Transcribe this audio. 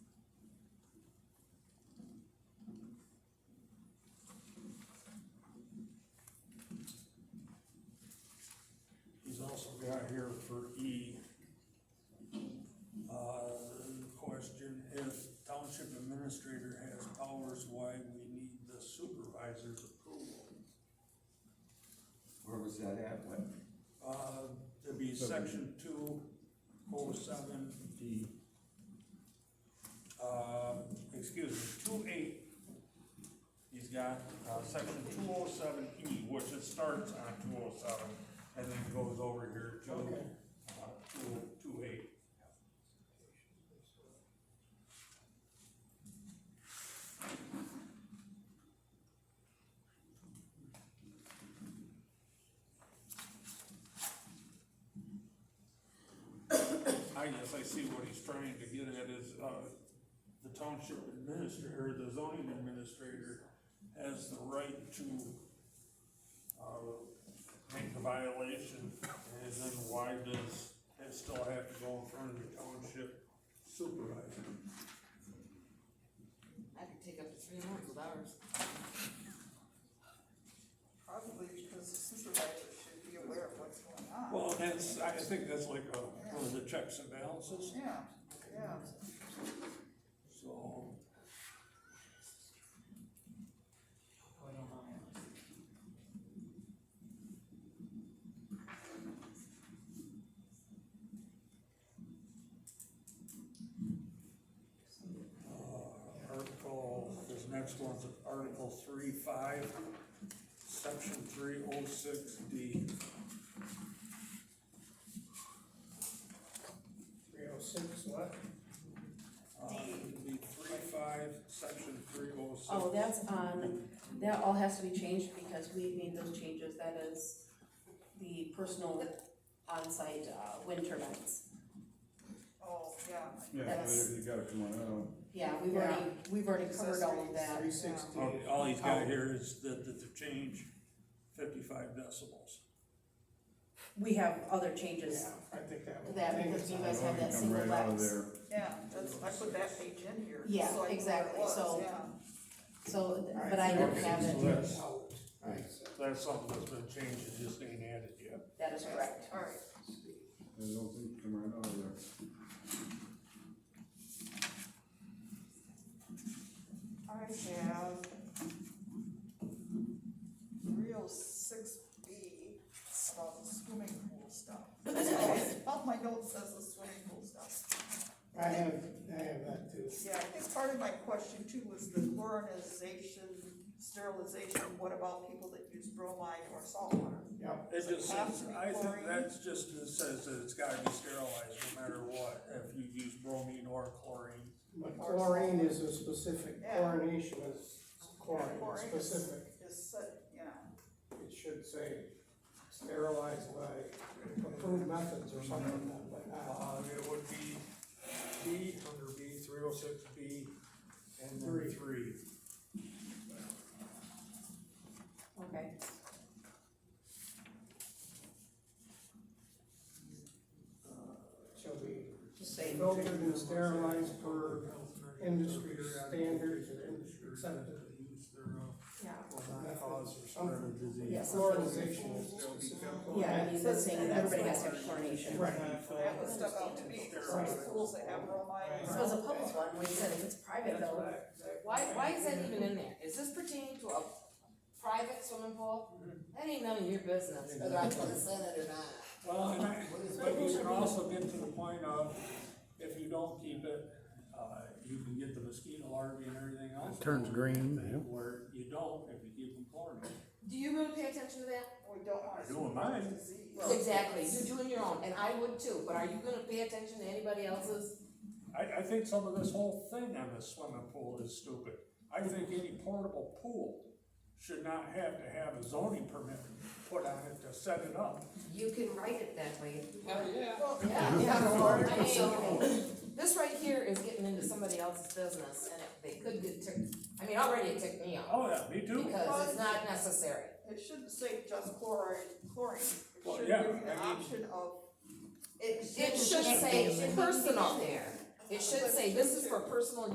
got here for E. Uh, question, if township administrator has powers, why we need the supervisor's approval? Where was that at, what? Uh, it'd be section two oh seven D, uh, excuse me, two eight, he's got, uh, section two oh seven E, which it starts on two oh seven, and then goes over here to, uh, two, two eight. I guess I see what he's trying to get at is, uh, the township administrator, the zoning administrator has the right to, uh, make a violation, and then why does it still have to go in front of the township supervisor? I could take up to three months with ours. Probably because the supervisor should be aware of what's going on. Well, that's, I think that's like, uh, one of the checks and balances, Yeah, yeah. so. Uh, Article, this next one's Article three five, section three oh six D. Three oh six, what? Uh, it'd be three five, section three oh six. Oh, that's on, that all has to be changed because we made those changes, that is the personal on-site uh, wind turbines. Oh, yeah. yeah, That's- you gotta come on out. Yeah, we've already, we've already covered all of that. Three sixty. All, all he's got here is that, that the change fifty-five decibels. We have other changes Yeah, I think that to would. that because you guys have that Come single right out of lapse. there. Yeah, that's, I put that page in here. so Yeah, I knew where it exactly, was, so- yeah. So, but I don't have So it, that's out. Alright, so That's something that's been changed, it just ain't added yet. that is correct. All right. I don't think, come right out of there. I have three oh six B about the swimming pool stuff. All my notes says the swimming pool stuff. I have, I have that too. Yeah, I think part of my question too was the chlorinization, sterilization, what about people that use bromide or salt water? Yep, It just says, I think Chlorine. that's just, it says that it's gotta be sterilized no matter what, if you use bromine or chlorine. but chlorine is a specific, Yeah. chlorination is Chlorine chlorine, is- specific. Is, said, you know, It should say sterilized by approved methods or something like that, but not. Uh, it would be B under B, three oh six B, and then Three. three. Okay. Shall be Same. filtered and sterilized per industry standards or industry accepted. Use thereho Yeah. not cause or spread of disease. Yes. Fluorination is specific. Yeah, I mean, they're saying that everybody has to have coronation. Right. that was stuck out to me, for some schools that have bromide. So it's a public one, we said if it's private though, Why, why is that even in there? Is this pertaining to a private swimming pool? That ain't none of your business, Mm-hmm. whether I consent it or not. Well, and I, but you can also get to the point of, if you don't keep it, uh, you can get the mosquito larvae and everything else. turns green, yeah. Where you don't, if you keep them chlorinated. Do you really pay attention to that? We don't want I to. do in mine. Disease. Exactly, you're doing your own, and I would too, but are you gonna pay attention to anybody else's? I, I think some of this whole thing on the swimming pool is stupid. I think any portable pool should not have to have a zoning permit put on it to set it up. You can write it that way. Well, Yeah, I mean, this right here is getting into somebody else's business, and it- they could get ticked, I mean, already it ticked me off, Oh, yeah, me too. because it's not necessary. It shouldn't say just chlorine, chlorine, it Well, should give yeah, you I the mean- option of, it It should should say personal there. It should say, this is for personal